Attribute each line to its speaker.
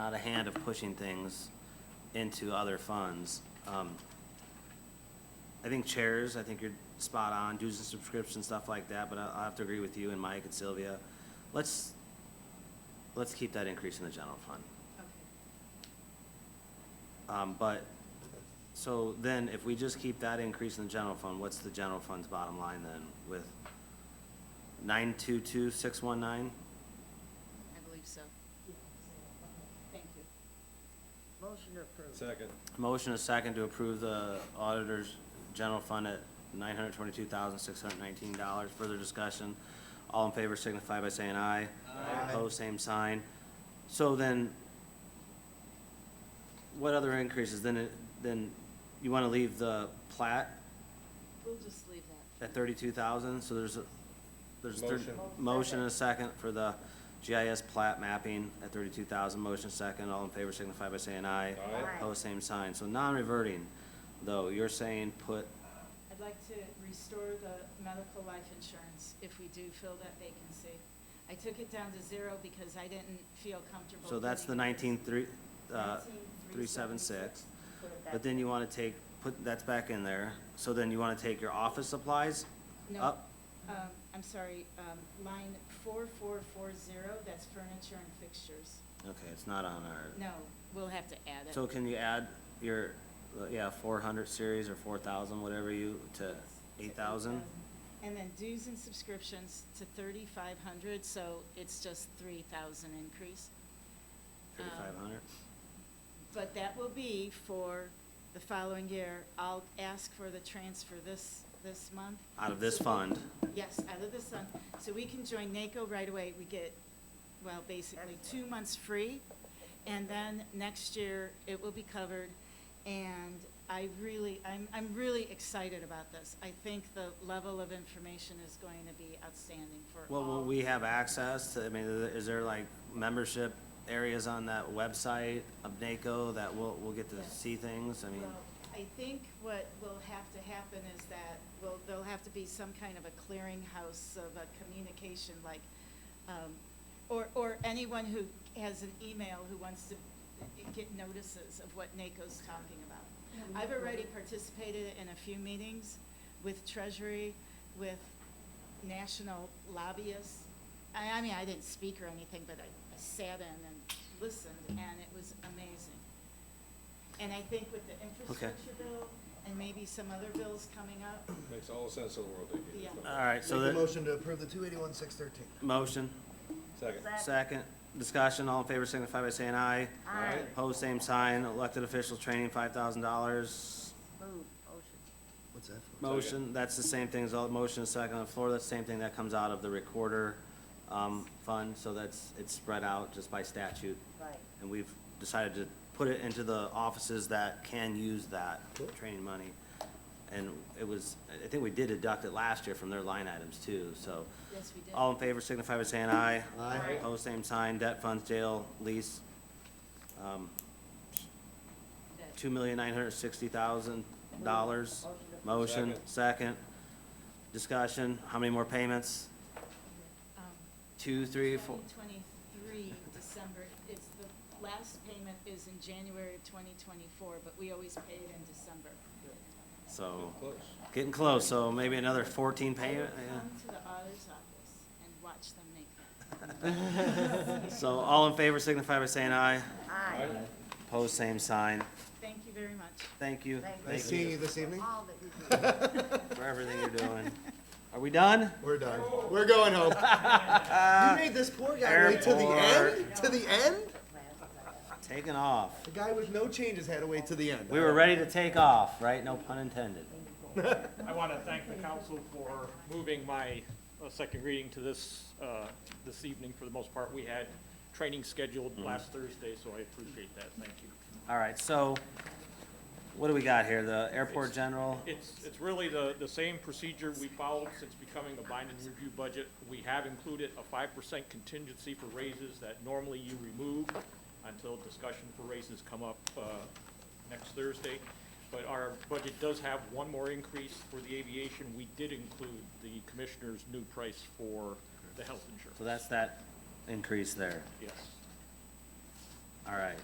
Speaker 1: out of hand of pushing things into other funds. Um, I think chairs, I think you're spot on, dues and subscriptions, stuff like that, but I- I'll have to agree with you and Mike and Sylvia. Let's, let's keep that increase in the general fund. Um, but, so then if we just keep that increase in the general fund, what's the general fund's bottom line then with nine-two-two-six-one-nine?
Speaker 2: I believe so. Thank you.
Speaker 3: Motion to approve.
Speaker 4: Second.
Speaker 1: Motion is second to approve the auditor's general fund at nine hundred twenty-two thousand, six hundred nineteen dollars. Further discussion? All in favor signify by saying aye.
Speaker 4: Aye.
Speaker 1: Opposed, same sign. So then, what other increases? Then, it- then you wanna leave the plat
Speaker 2: We'll just leave that.
Speaker 1: at thirty-two thousand, so there's a, there's thir-
Speaker 4: Motion.
Speaker 1: motion and a second for the GIS plat mapping at thirty-two thousand, motion second, all in favor signify by saying aye.
Speaker 4: Aye.
Speaker 1: Opposed, same sign, so non-reverting, though, you're saying put,
Speaker 5: I'd like to restore the medical life insurance if we do fill that vacancy. I took it down to zero because I didn't feel comfortable.
Speaker 1: so that's the
Speaker 5: putting it as
Speaker 1: nineteen three, uh,
Speaker 5: 19,376.
Speaker 1: three seven six.
Speaker 5: Put it
Speaker 1: But
Speaker 5: back.
Speaker 1: then you wanna take, put, that's back in there, so then you wanna take your office supplies
Speaker 5: No.
Speaker 1: up?
Speaker 5: Um, I'm sorry, um, line four four four zero, that's furniture and fixtures.
Speaker 1: Okay, it's not on our.
Speaker 5: No, we'll have to add it.
Speaker 1: So can you add your, uh, yeah, four hundred series or four thousand, whatever you, to eight thousand?
Speaker 5: And then dues and subscriptions to thirty-five hundred, so it's just three thousand increase. Um,
Speaker 1: Thirty-five hundred?
Speaker 5: But that will be for the following year. I'll ask for the transfer this, this month.
Speaker 1: Out of this fund?
Speaker 5: Yes, out of this fund. So we can join NACO right away. We get, well, basically two months free. And then next year, it will be covered. And I really, I'm, I'm really excited about this. I think the level of information is going to be outstanding for all.
Speaker 1: Well, will we have access to, I mean, is there like membership areas on that website of NACO that we'll, we'll get to
Speaker 5: Yes.
Speaker 1: see things? I mean,
Speaker 5: Well, I think what will have to happen is that, well, there'll have to be some kind of a clearinghouse of a communication, like, um, or, or anyone who has an email who wants to get notices of what NACO's talking about. I've already participated in a few meetings with Treasury, with national lobbyists. I, I mean, I didn't speak or anything, but I I sat in and listened, and it was amazing. And I think with the infrastructure bill and maybe some other bills coming up,
Speaker 4: Makes all the sense in the world they gave
Speaker 5: Yeah.
Speaker 1: all right, so
Speaker 6: Make
Speaker 1: the,
Speaker 6: a motion to approve the two eighty-one, six thirteen.
Speaker 1: motion,
Speaker 4: Second.
Speaker 1: second, discussion, all in favor signify by saying aye.
Speaker 4: Aye.
Speaker 1: Pose same sign, elected officials training, five thousand dollars.
Speaker 3: Move, motion.
Speaker 6: What's that for?
Speaker 1: Motion, that's the same thing as all, motion is second on the floor, that's the same thing that comes out of the recorder, um, fund, so that's, it's spread out just by statute.
Speaker 3: Right.
Speaker 1: And we've decided to put it into the offices that can use that training money. And it was, I think we did deduct it last year from their line items too, so.
Speaker 5: yes, we did.
Speaker 1: All in favor signify by saying aye.
Speaker 6: Aye.
Speaker 1: Opposed, same sign, debt funds, jail, lease,
Speaker 2: That-
Speaker 1: two million nine hundred sixty thousand dollars. Motion,
Speaker 4: Second.
Speaker 1: second. Discussion, how many more payments?
Speaker 5: Um,
Speaker 1: Two, three, four?
Speaker 5: 2023, December, it's, the last payment is in January of 2024, but we always pay it in December.
Speaker 1: So,
Speaker 4: Close.
Speaker 1: getting close, so maybe another fourteen
Speaker 5: I will
Speaker 1: payment,
Speaker 5: come
Speaker 1: yeah.
Speaker 5: to the auditor's office and watch them make that.
Speaker 1: So all in favor signify by saying aye.
Speaker 3: Aye.
Speaker 4: Aye.
Speaker 1: Pose same sign.
Speaker 5: Thank you very much.
Speaker 1: Thank you.
Speaker 3: Thank you.
Speaker 1: Thank
Speaker 6: Nice seeing
Speaker 1: you
Speaker 6: you this evening.
Speaker 3: All that you do.
Speaker 1: for everything you're doing. Are we done?
Speaker 6: We're done. We're going home. You made this poor guy wait to the end? To the end?
Speaker 1: Taking off.
Speaker 6: The guy with no changes had to wait to the end.
Speaker 1: We were ready to take off, right? No pun intended.
Speaker 7: I want to thank the council for moving my uh, second reading to this, uh, this evening for the most part. We had training scheduled last Thursday, so I appreciate that. Thank you.
Speaker 1: All right, so what do we got here? The airport general?
Speaker 7: It's, it's really the, the same procedure we followed since becoming a binding review budget. We have included a five percent contingency for raises that normally you remove until discussion for raises come up uh, next Thursday. But our budget does have one more increase for the aviation. We did include the commissioner's new price for the health
Speaker 1: So
Speaker 7: insurance.
Speaker 1: that's that increase there.
Speaker 7: Yes.
Speaker 1: All right,